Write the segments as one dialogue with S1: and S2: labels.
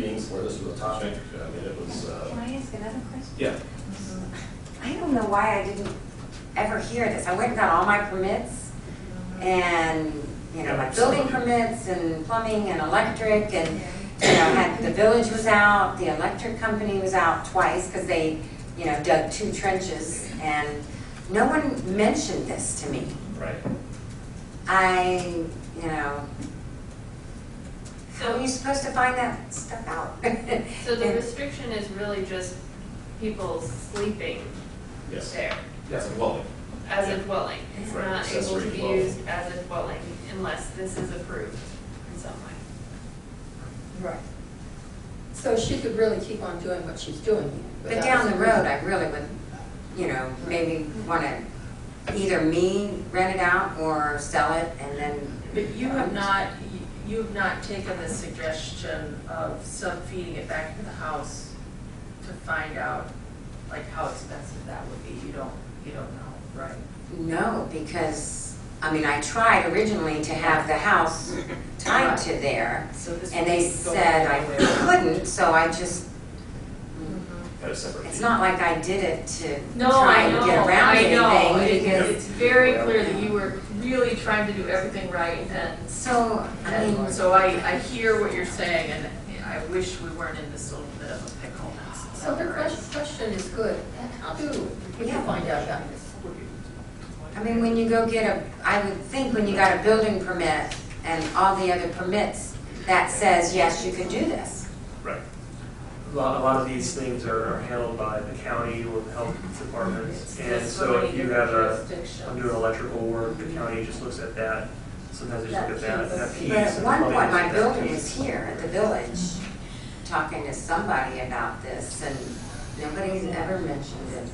S1: where this was a topic. I mean, it was,
S2: Can
S1: uh,
S2: I ask another question?
S1: yeah.
S2: I don't know why I didn't ever hear this. I went and got all my permits and, you know, my building permits and plumbing and electric and, you know, had, the village was out, the electric company was out twice because they, you know, dug two trenches and no one mentioned this to me.
S1: Right.
S2: I, you know, how are you
S3: So,
S2: supposed to find that stuff out?
S3: so the restriction is really just people sleeping
S1: Yes.
S3: there
S1: Yes, well,
S3: as a dwelling. It's
S1: Right,
S3: not able
S1: accessory
S3: to be
S1: dwelling.
S3: used as a dwelling unless this is approved in some way.
S4: Right. So she could really keep on doing what she's doing.
S2: But down the road, I really would, you know, maybe want to either me rent it out or sell it and then.
S5: But you have not, you have not taken the suggestion of some feeding it back to the house to find out, like, how expensive that would be, you don't, you don't know, right?
S2: No, because, I mean, I tried originally to have the house tied to there.
S5: So this
S2: And
S5: would
S2: they
S5: be going
S2: said I
S5: away.
S2: couldn't, so I just,
S1: had a separate.
S2: it's
S1: fee.
S2: not like I did it to
S3: No,
S2: try
S3: I
S2: and
S3: know,
S2: get around
S3: I know.
S2: anything
S3: It-
S2: because,
S3: It's very clear that you were really trying to do everything right and
S2: so, I mean.
S5: And so I, I hear what you're saying, and I wish we weren't in this little bit of a pickle.
S4: So the question, question is good. How do we
S2: Yeah.
S4: find out about this?
S2: I mean, when you go get a, I would think when you got a building permit and all the other permits, that says, yes, you can do this.
S1: Right.
S6: A lot, a lot of these things are are handled by the county or the health department. And
S5: There's so
S6: so if
S5: many
S6: you
S5: different
S6: have a,
S5: jurisdictions.
S6: I'm doing electrical work, the county just looks at that. Sometimes they just look at that, that piece.
S2: But at
S6: and
S2: one
S6: probably
S2: point, my
S6: just that
S2: builder
S6: piece.
S2: was here at the village, talking to somebody about this, and nobody's ever mentioned it.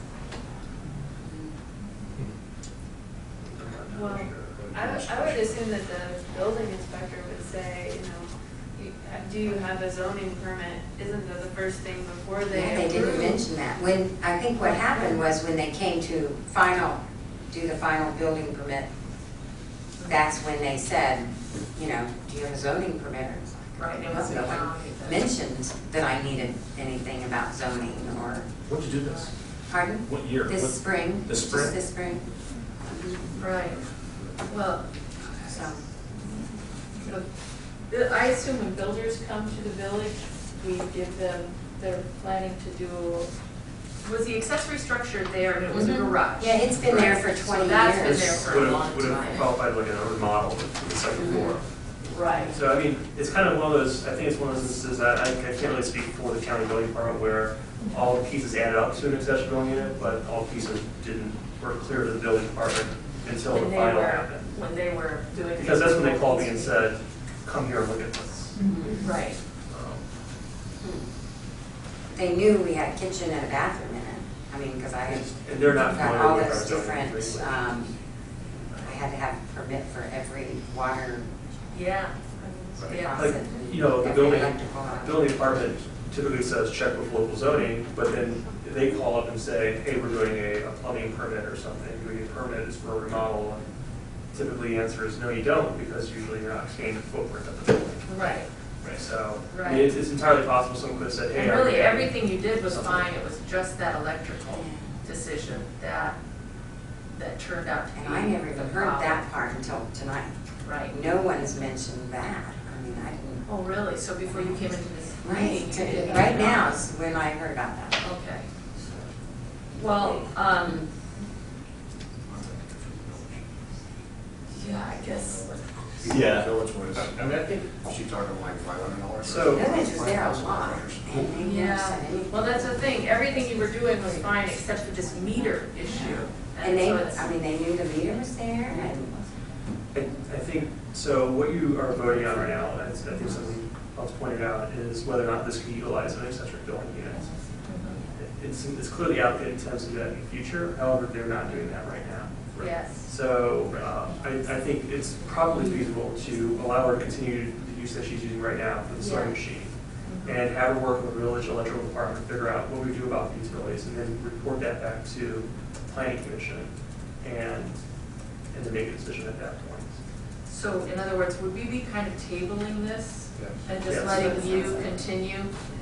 S6: I'm
S3: Well,
S6: not sure.
S3: I would, I would assume that the building inspector would say, you know, you- uh, do you have a zoning permit? Isn't that the first thing before they
S2: Yeah,
S3: approve?
S2: They didn't mention that. When, I think what happened was when they came to final, do the final building permit, that's when they said, you know, do you have a zoning permit? And it's like,
S5: Right, it
S2: "No,
S5: was
S2: no one
S5: found.
S2: Mentioned that I needed anything about zoning or,
S1: When'd you do this?
S2: pardon?
S1: What year? What-
S2: This spring.
S1: This
S2: just
S1: spring?
S2: This spring,
S5: Right, well,
S2: so.
S5: Look, the- I assume when builders come to the village, we give them, they're planning to do, was the accessory structure there and it was a
S2: Mhm.
S5: garage?
S2: Yeah, it's been there for
S5: Right. So
S2: 20
S5: that's been
S2: years.
S5: there
S6: This
S5: for
S6: would
S5: a long
S6: have, would have
S5: time.
S6: qualified like an remodel with the second floor.
S5: Right.
S6: So I mean, it's kind of one of those, I think it's one of those instances that I, I can't really speak for the county building department where all the pieces added up to an accessory building unit, but all pieces didn't, were clear to the building department until
S5: When
S6: the
S5: they
S6: final
S5: were-
S6: happened.
S5: When they were doing.
S6: Because that's when they called me and said, come here and look at this.
S2: Mm-hmm.
S5: Right,
S6: Um,
S2: They knew we had a kitchen and a bathroom in it. I mean, because I had.
S6: And they're not
S2: got
S6: familiar
S2: all
S6: with our
S2: those
S6: zoning
S2: different,
S6: regulations.
S2: um, I had to have a permit for every water
S5: yeah.
S6: Right.
S5: Yeah.
S6: Like,
S2: faucet.
S6: you know, the
S2: every
S6: building-
S2: electrical outlet.
S6: Building department typically says check with local zoning, but then they call up and say, hey, we're doing a a plumbing permit or something, do we get permits for a remodel? And Typically the answer is no, you don't, because usually you're not expanding the footprint of the building.
S5: Right,
S6: Right, so, I
S5: Right.
S6: mean, it's it's entirely possible someone could have said, hey.
S5: and
S6: I-
S5: really, everything you did was fine, it was just that electrical decision that, that turned out to be.
S2: And I never even
S5: the
S2: heard
S5: problem.
S2: that part until tonight.
S5: Right.
S2: No one's mentioned that. I mean, I didn't.
S5: Oh, really? So before you came into this meeting? you
S2: Right,
S5: didn't
S2: right
S5: know?
S2: now is when I heard about that.
S5: Okay. Well, um, yeah, I guess,
S7: Yeah.
S8: Village was,
S7: I mean, I think
S8: she's talking like five hundred dollars.
S6: So-
S2: The Village was there a lot. and they never said
S5: yeah.
S2: anything.
S5: Well, that's the thing, everything you were doing was fine except for this meter issue.
S2: And they,
S5: so it's-
S2: I mean, they knew the meter was there and.
S6: I I think, so what you are voting on right now, and I think something else pointed out, is whether or not this could utilize an accessory building unit. It's, it's clearly out there, intends to do that in the future, however, they're not doing that right now.
S5: Yes.
S6: So uh, I, I think it's probably feasible to allow her to continue the use that she's using right now for the sewing
S5: Yeah.
S6: machine.
S5: Mm-hmm.
S6: And have her work with the village electrical department, figure out what we do about these delays, and then report that back to the planning commission and, and then make a decision at that point.
S5: So in other words, would we be kind of tabling this and just
S6: Yes.
S5: letting you continue?